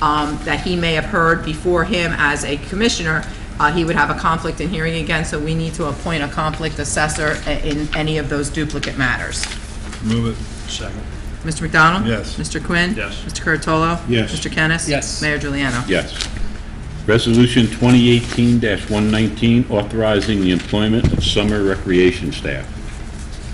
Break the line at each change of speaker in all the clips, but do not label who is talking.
um, that he may have heard before him as a commissioner, uh, he would have a conflict in hearing again, so we need to appoint a conflict assessor i- in any of those duplicate matters.
Move it. Second.
Mr. McDonald?
Yes.
Mr. Quinn?
Yes.
Mr. Curatolo?
Yes.
Mr. Kennis?
Yes.
Mayor Juliano?
Yes. Resolution 2018-119, authorizing the employment of summer recreation staff.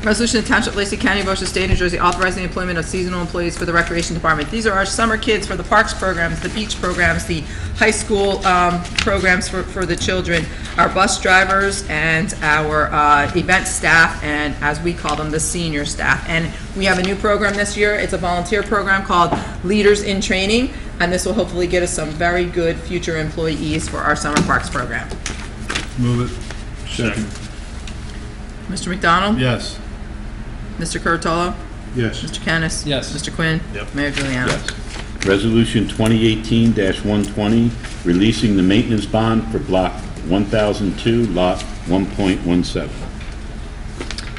Resolution to Township of Lacey County, Ocean State, New Jersey, authorizing the employment of seasonal employees for the Recreation Department. These are our summer kids for the parks programs, the beach programs, the high school um, programs for for the children, our bus drivers, and our uh, event staff, and as we call them, the senior staff. And we have a new program this year. It's a volunteer program called Leaders in Training, and this will hopefully get us some very good future employees for our summer parks program.
Move it. Second.
Mr. McDonald?
Yes.
Mr. Curatolo?
Yes.
Mr. Kennis?
Yes.
Mr. Quinn?
Yep.
Mayor Juliana?
Yes. Resolution 2018-120, releasing the maintenance bond for Block 1002, Lot 1.17.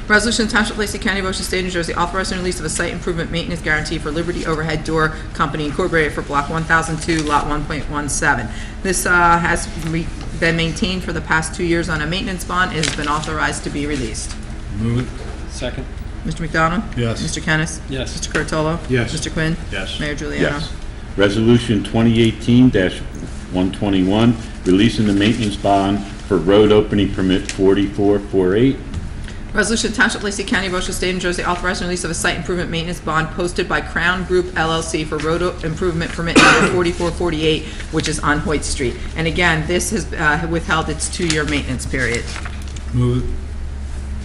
Resolution to Township of Lacey County, Ocean State, New Jersey, authorizing release of a site improvement maintenance guarantee for Liberty Overhead Door Company Incorporated for Block 1002, Lot 1.17. This uh, has re- been maintained for the past two years on a maintenance bond, it has been authorized to be released.
Move it.
Second.
Mr. McDonald?
Yes.
Mr. Kennis?
Yes.
Mr. Curatolo?
Yes.
Mr. Quinn?
Yes.
Mayor Juliano?
Yes. Resolution 2018-121, releasing the maintenance bond for road opening permit 4448,
Resolution to Township of Lacey County, Ocean State, New Jersey, authorizing release of a site improvement maintenance bond posted by Crown Group LLC for road o- improvement permit number 4448, which is on Hoyt Street. And again, this has uh, withheld its two-year maintenance period.
Move it.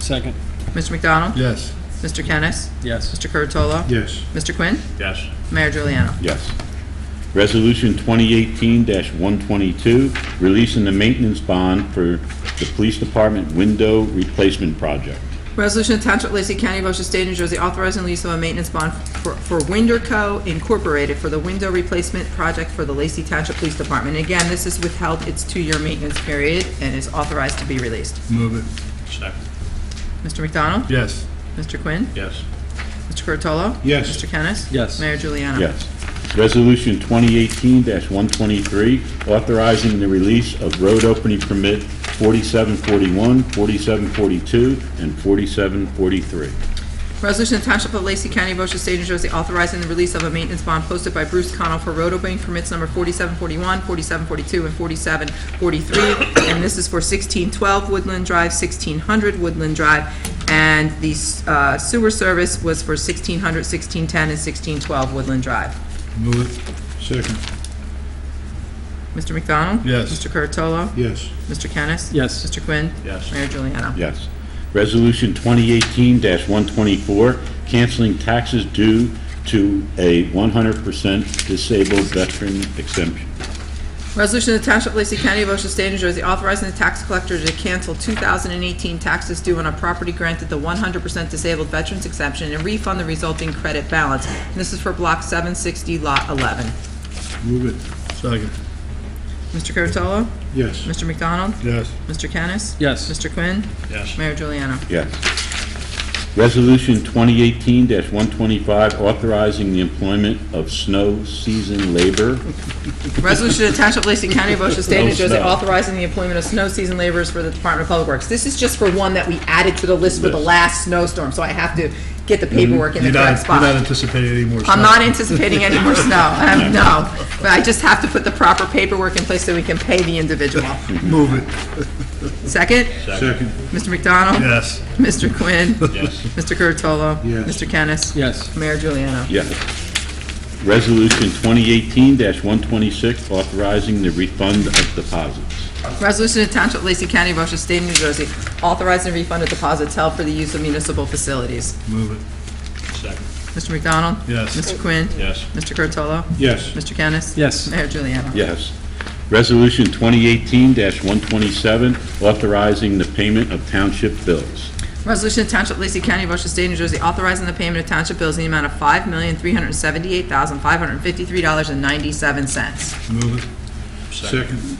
Second.
Mr. McDonald?
Yes.
Mr. Kennis?
Yes.
Mr. Curatolo?
Yes.
Mr. Quinn?
Yes.
Mayor Juliano?
Yes. Resolution 2018-122, releasing the maintenance bond for the Police Department window replacement project.
Resolution to Township of Lacey County, Ocean State, New Jersey, authorizing release of a maintenance bond for for Winderco Incorporated for the window replacement project for the Lacey Township Police Department. Again, this has withheld its two-year maintenance period and is authorized to be released.
Move it. Second.
Mr. McDonald?
Yes.
Mr. Quinn?
Yes.
Mr. Curatolo?
Yes.
Mr. Kennis?
Yes.
Mayor Juliana?
Yes. Resolution 2018-123, authorizing the release of road opening permit 4741, 4742, and 4743.
Resolution to Township of Lacey County, Ocean State, New Jersey, authorizing the release of a maintenance bond posted by Bruce Connell for road opening permits number 4741, 4742, and 4743. And this is for 1612 Woodland Drive, 1600 Woodland Drive. And the uh, sewer service was for 1600, 1610, and 1612 Woodland Drive.
Move it. Second.
Mr. McDonald?
Yes.
Mr. Curatolo?
Yes.
Mr. Kennis?
Yes.
Mr. Quinn?
Yes.
Mayor Juliana?
Yes. Resolution 2018-124, canceling taxes due to a 100% disabled veteran exemption.
Resolution of the Township of Lacey County, Ocean State, New Jersey, authorizing the tax collector to cancel 2018 taxes due on a property granted the 100% disabled veterans exemption and refund the resulting credit balance. And This is for Block 760, Lot 11.
Move it. Second.
Mr. Curatolo?
Yes.
Mr. McDonald?
Yes.
Mr. Kennis?
Yes.
Mr. Quinn?
Yes.
Mayor Juliana?
Yes. Resolution 2018-125, authorizing the employment of snow season labor.
Resolution to Township of Lacey County, Ocean State,
No
New Jersey,
snow.
authorizing the employment of snow season laborers for the Department of Public Works. This is just for one that we added to the list for the
List.
last snowstorm, so I have to get the paperwork in the
Mm, You're not-
correct spot.
You're not anticipating any more
I'm
snow.
not anticipating any more snow, Um, no. But I just have to put the proper paperwork in place so we can pay the individual.
Move it.
Second,
Second.
Mr. McDonald?
Yes.
Mr. Quinn?
Yes.
Mr. Curatolo?
Yes.
Mr. Kennis?
Yes.
Mayor Juliana?
Yes. Resolution 2018-126, authorizing the refund of deposits.
Resolution to Township of Lacey County, Ocean State, New Jersey, authorizing refund of deposits held for the use of municipal facilities.
Move it. Second.
Mr. McDonald?
Yes.
Mr. Quinn?
Yes.
Mr. Curatolo?
Yes.
Mr. Kennis?
Yes.
Mayor Juliana?
Yes. Resolution 2018-127, authorizing the payment of township bills.
Resolution to Township of Lacey County, Ocean State, New Jersey, authorizing the payment of township bills in the amount of five million, three hundred and seventy-eight thousand, five hundred and fifty-three dollars and ninety-seven cents.
Move it. Second.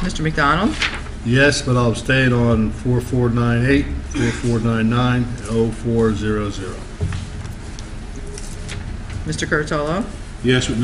Mr. McDonald?
Yes, but I'll abstain on 4498, 4499, and 0400.
Mr. Curatolo?
Yes, with